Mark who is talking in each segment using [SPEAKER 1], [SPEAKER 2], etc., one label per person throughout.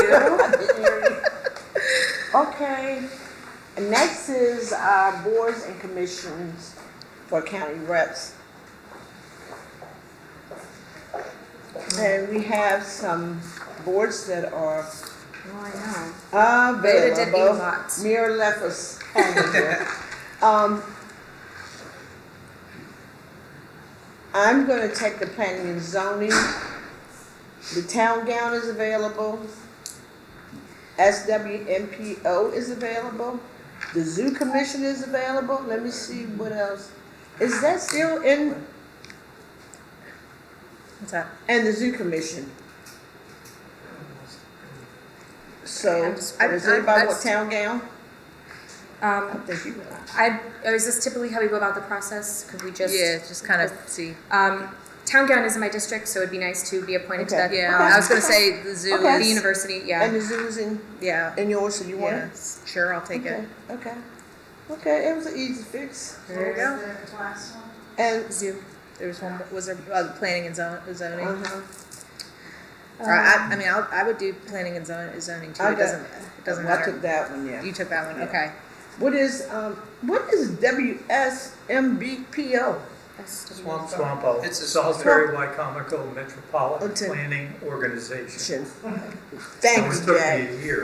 [SPEAKER 1] I didn't hear you. Okay. And Next is uh, boards and commissions for county reps. And we have some boards that are
[SPEAKER 2] Oh, I know.
[SPEAKER 1] Ah,
[SPEAKER 2] Beta did
[SPEAKER 1] available.
[SPEAKER 2] lots.
[SPEAKER 1] Mira left us hanging here. Um, I'm gonna take the planning and zoning. The town gown is available. SWMPO is available. The zoo commission is available. Let me see what else. Is that still in,
[SPEAKER 2] What's up?
[SPEAKER 1] and the zoo commission? So,
[SPEAKER 2] I'm just- I-
[SPEAKER 1] does
[SPEAKER 2] I-
[SPEAKER 1] anybody
[SPEAKER 2] I-
[SPEAKER 1] want town gown? I
[SPEAKER 2] Um,
[SPEAKER 1] think you will.
[SPEAKER 2] I, or is this typically how we go about the process? Could we just?
[SPEAKER 3] Yeah, just kind of see.
[SPEAKER 2] Um, town gown is in my district, so it'd be nice to be appointed to
[SPEAKER 1] Okay.
[SPEAKER 2] that. uh,
[SPEAKER 3] Yeah,
[SPEAKER 1] Okay.
[SPEAKER 3] I was gonna say the zoo.
[SPEAKER 1] Okay.
[SPEAKER 2] The
[SPEAKER 3] Is,
[SPEAKER 2] university,
[SPEAKER 1] And
[SPEAKER 2] yeah.
[SPEAKER 1] the zoo's in,
[SPEAKER 3] yeah.
[SPEAKER 1] in yours, so you want it?
[SPEAKER 3] Yes. Sure, I'll take
[SPEAKER 1] Okay,
[SPEAKER 3] it.
[SPEAKER 1] okay, okay, it was an easy fix,
[SPEAKER 3] There you go.
[SPEAKER 1] and,
[SPEAKER 3] Zoo. There was one. more- Was there uh, planning and zon- zoning?
[SPEAKER 1] uh-huh,
[SPEAKER 3] Or
[SPEAKER 1] um,
[SPEAKER 3] I, I mean, I'll, I would do planning and zon- zoning too.
[SPEAKER 1] I
[SPEAKER 3] It
[SPEAKER 1] got-
[SPEAKER 3] doesn't. It doesn't
[SPEAKER 1] I took
[SPEAKER 3] matter.
[SPEAKER 1] that one, yeah.
[SPEAKER 3] You took that one.
[SPEAKER 1] Yeah.
[SPEAKER 3] Okay.
[SPEAKER 1] What is, um, what is WSMBPO?
[SPEAKER 4] Swamp Swampo.
[SPEAKER 5] It's a-
[SPEAKER 4] Salisbury Wycomico Metropolitan
[SPEAKER 1] Okay.
[SPEAKER 4] Planning Organization.
[SPEAKER 1] Thank
[SPEAKER 4] It
[SPEAKER 1] you,
[SPEAKER 4] took
[SPEAKER 1] Jack.
[SPEAKER 4] me a year.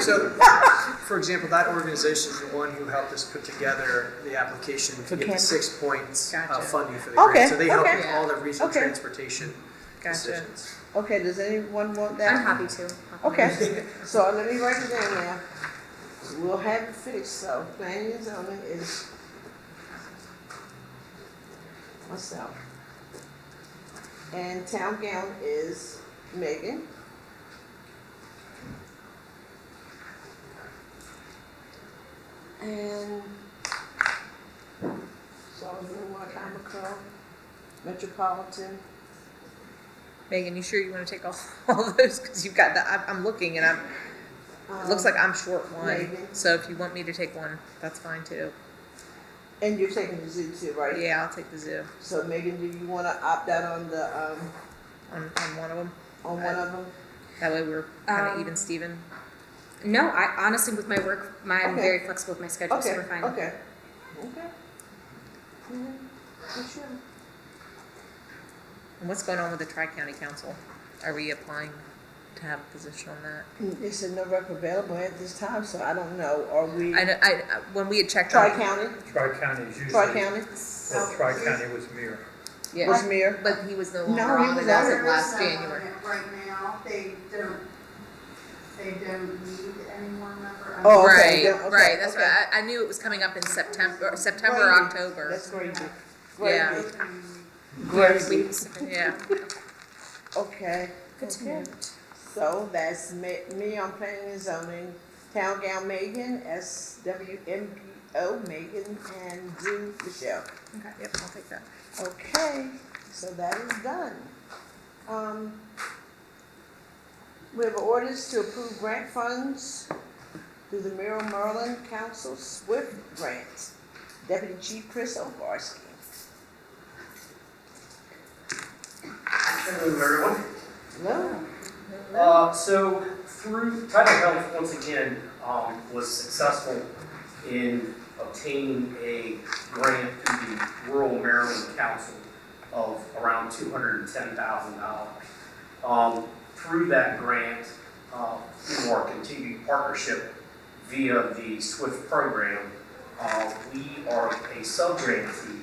[SPEAKER 5] So, for example, that organization is the one who helped us put together the application
[SPEAKER 1] For
[SPEAKER 5] to get the
[SPEAKER 1] Camp-
[SPEAKER 5] six points uh,
[SPEAKER 3] Gotcha.
[SPEAKER 5] funding for the
[SPEAKER 1] Okay,
[SPEAKER 5] grant. So they help
[SPEAKER 1] okay.
[SPEAKER 5] with all the regional
[SPEAKER 1] Okay.
[SPEAKER 5] transportation
[SPEAKER 3] Gotcha.
[SPEAKER 5] decisions.
[SPEAKER 1] Okay, does anyone want that?
[SPEAKER 2] Uh, I'm happy to.
[SPEAKER 1] Okay, so let me write it down now. We'll have it fixed, so planning and zoning is myself. And town gown is Megan. And Salisbury, Wycomico, Metropolitan.
[SPEAKER 3] Megan, you sure you want to take all, all those? Because you've got the. I'm, I'm looking and I'm. It looks
[SPEAKER 1] um,
[SPEAKER 3] like I'm short one.
[SPEAKER 1] maybe.
[SPEAKER 3] So if you want me to take one, that's fine too.
[SPEAKER 1] And you're taking the zoo too, right?
[SPEAKER 3] Yeah, I'll take the zoo
[SPEAKER 1] So Megan, do you wanna opt out on the, um,
[SPEAKER 3] on, on one of them.
[SPEAKER 1] on one of them?
[SPEAKER 3] That way we're kind of
[SPEAKER 2] Um,
[SPEAKER 3] even, Steven.
[SPEAKER 2] No, I honestly, with my work, my, I'm
[SPEAKER 1] Okay.
[SPEAKER 2] very flexible with my schedule, so
[SPEAKER 1] Okay,
[SPEAKER 2] we're fine.
[SPEAKER 1] okay. Okay. Mhm. For sure.
[SPEAKER 3] And what's going on with the Tri County Council? Are we applying to have a position on that?
[SPEAKER 1] Mm, They said no rep available at this time, so I don't know, are we,
[SPEAKER 3] I know, I, I- when we had checked on.
[SPEAKER 1] Tri-County,
[SPEAKER 4] Tri-County is usually.
[SPEAKER 1] Tri-County,
[SPEAKER 4] Well, Tri-County was Muir.
[SPEAKER 1] was mayor?
[SPEAKER 3] But he was no
[SPEAKER 1] No,
[SPEAKER 3] longer
[SPEAKER 1] he
[SPEAKER 3] on,
[SPEAKER 1] was
[SPEAKER 3] it
[SPEAKER 1] out. uh,
[SPEAKER 3] wasn't
[SPEAKER 6] There is
[SPEAKER 3] last
[SPEAKER 6] someone
[SPEAKER 3] January.
[SPEAKER 6] that Right now, they don't, they don't need any more member.
[SPEAKER 1] Oh, okay,
[SPEAKER 3] Right,
[SPEAKER 1] yeah, okay,
[SPEAKER 3] right, that's
[SPEAKER 1] okay.
[SPEAKER 3] right, I, I knew it was coming up in September, or September, or
[SPEAKER 1] Gravy.
[SPEAKER 3] October,
[SPEAKER 1] That's crazy.
[SPEAKER 3] Yeah.
[SPEAKER 1] Gravy.
[SPEAKER 2] We-
[SPEAKER 1] Gravy.
[SPEAKER 3] yeah.
[SPEAKER 1] Okay.
[SPEAKER 2] Good to
[SPEAKER 1] Okay.
[SPEAKER 2] know.
[SPEAKER 1] So that's me, me on planning and zoning, town gal Megan, SWMPO Megan, and Drew Michelle.
[SPEAKER 3] Okay, yep, I'll take that.
[SPEAKER 1] Okay, so that is done. Um, we have orders to approve grant funds through the Merrill Merlin Council Swift Grant. Deputy Chief Chris Obarski.
[SPEAKER 7] Hello, everyone.
[SPEAKER 1] Hello?
[SPEAKER 7] Uh, so through Title Health, once again, um, was successful in obtaining a grant through the Rural Maryland Council of around two hundred and ten thousand dollars. Um, through that grant, uh, through our continued partnership via the SWIFT program, uh, we are a subgrantee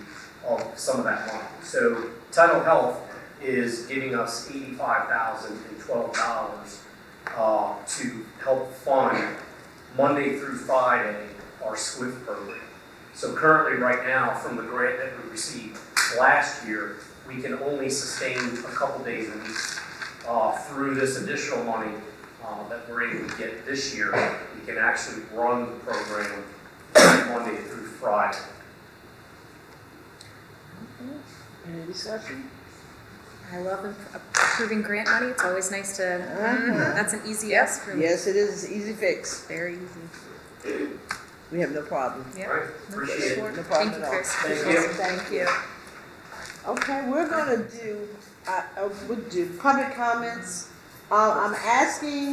[SPEAKER 7] of some of that money. So Title Health is giving us eighty-five thousand and twelve dollars uh, to help fund Monday through Friday our SWIFT program. So currently, right now, from the grant that we received last year, we can only sustain a couple days a week. Uh, Through this additional money uh, that we're able to get this year, we can actually run the program Monday through Friday.
[SPEAKER 1] Any discussion?
[SPEAKER 2] I love approving grant money. It's always nice to,
[SPEAKER 1] Uh-huh.
[SPEAKER 2] that's an easy yes for me.
[SPEAKER 1] Yes, it is, It's easy fix.
[SPEAKER 3] Very easy.
[SPEAKER 1] We have no problem.
[SPEAKER 3] Yep.
[SPEAKER 7] All right, appreciate it.
[SPEAKER 1] No
[SPEAKER 2] Thank
[SPEAKER 1] problem
[SPEAKER 2] you,
[SPEAKER 1] at all.
[SPEAKER 2] Chris.
[SPEAKER 7] Thank you.
[SPEAKER 1] Thank you. Okay, we're gonna do, uh, uh, we'll do public comments Uh, I'm asking